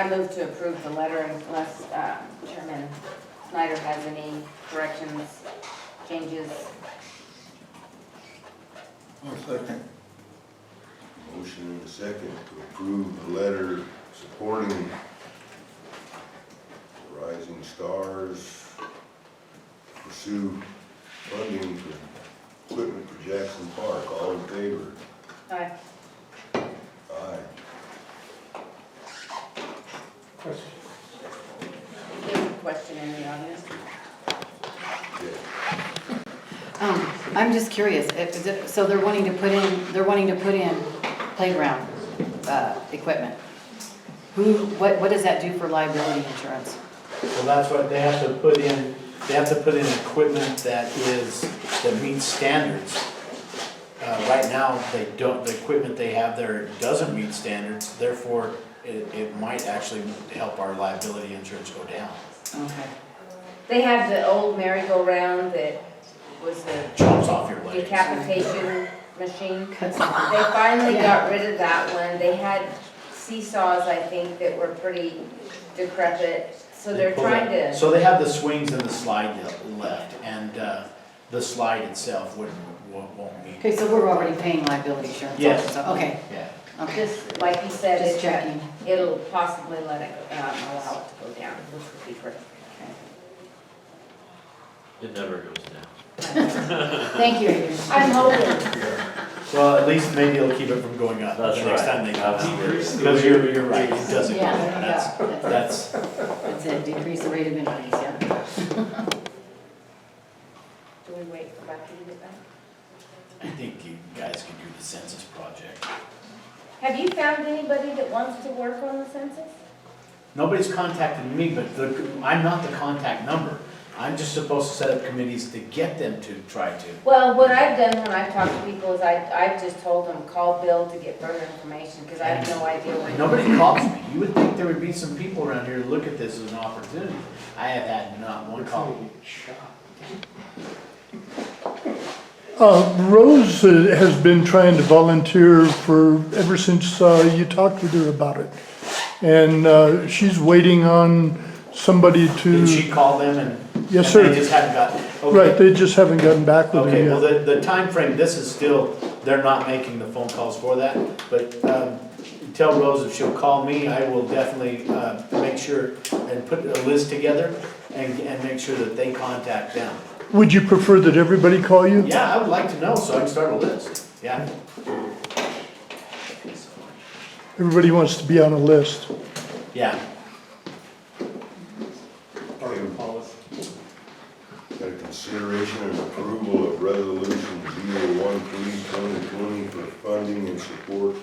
I move to approve the letter unless uh, Chairman Snyder has any corrections, changes. I'll second. Motion and a second to approve the letter supporting Rising Stars pursue funding for equipment for Jackson Park. All in favor? Aye. Aye. Question. Any question in the audience? Okay. Um, I'm just curious, if- is it- so they're wanting to put in, they're wanting to put in playground, uh, equipment. Who, what, what does that do for liability insurance? Well, that's what, they have to put in, they have to put in equipment that is, that meets standards. Uh, right now, they don't, the equipment they have there doesn't meet standards, therefore, it, it might actually help our liability insurance go down. Okay. They have the old merry-go-round that was the Chomps off your legs. decapitation machine. Cuts They finally got rid of that one. They had seesaws, I think, that were pretty decrepit, so they're They pull it. trying to, So they have the swings and the slide le- left, and, uh, the slide itself wouldn't, won't won't meet. Okay, so we're already paying liability insurance. Yes. also, Okay, Yeah. okay, just like you said, just it's a- checking. it'll possibly let it, go- um, allow it to go down, which would be great. It never goes down. Thank you. I'm hoping, Well, at least maybe it'll keep it from going up That's the next right. time they come. out. Decrease the Because you're, you're right, it doesn't go Yeah, down. That's, yeah, that's, that's, that's it, decrease the rate of increase, yeah. do we wait for Bucky to get back? I think you guys can do the census project. Have you found anybody that wants to work on the census? Nobody's contacted me, but the, I'm not the contact number. I'm just supposed to set up committees to get them to try to. Well, what I've done when I've talked to people is I, I've just told them, call Bill to get further information, because I have no idea when. Nobody calls me. You would think there would be some people around here to look at this as an opportunity. I have had not one call. Uh, Rose uh, has been trying to volunteer for, ever since uh, you talked with her about it. And uh, she's waiting on somebody Did she to, call them and? Mm. Yes, and sir. They just haven't gotten, okay. right, they just haven't gotten back with Okay, her well, yet. the, the timeframe, this is still, they're not making the phone calls for that, but, um, tell Rose if she'll call me, I will definitely, uh, make sure and put a list together and, and make sure that they contact them. Would you prefer that everybody call you? Yeah, I would like to know, so I can start a list, yeah. Everybody wants to be on a list. Yeah, Got a consideration and approval of resolution zero one three twenty twenty for funding and support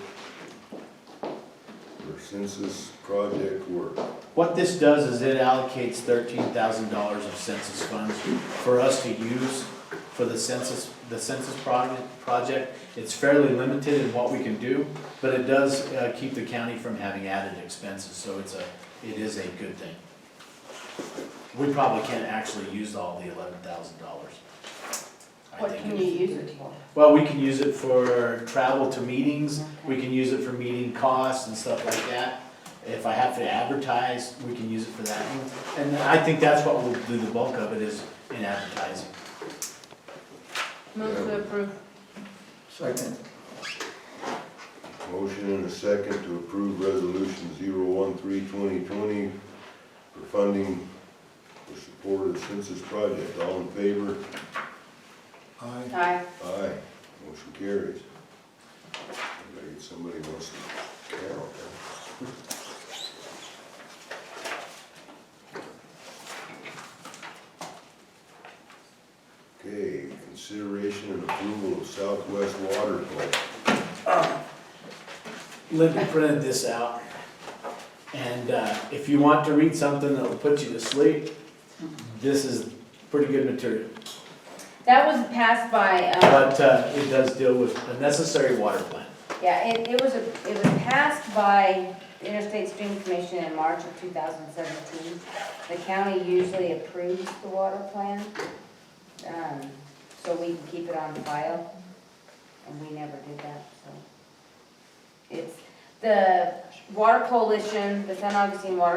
for census project work. what this does is it allocates thirteen thousand dollars of census funds for us to use for the census, the census project, project. It's fairly limited in what we can do, but it does, uh, keep the county from having added expenses, so it's a, it is a good thing. We probably can't actually use all the eleven thousand dollars. use it for? Well, we can use it for travel to meetings, we can use it for meeting costs and stuff like that. If I have to advertise, we can use it for that. And I think that's what we'll do the bulk of it is in advertising. Move to approve. Second. Motion and a second to approve resolution zero one three twenty twenty for funding for support of census project. All in favor? Aye. Aye. Aye. Motion carries. I think Somebody wants to count. Okay, consideration and approval of Southwest Water Plan. Linda printed this out. And uh, if you want to read something that'll put you to sleep, this is pretty good material. That was passed by, um, But uh, it does deal with a necessary water plan. yeah, it, it was, a it was passed by the Interstate Stream Commission in March of 2017. The county usually approves the water plan, um, so we can keep it on file, and we never did that, so. It's, the Water Coalition, the San Augustine Water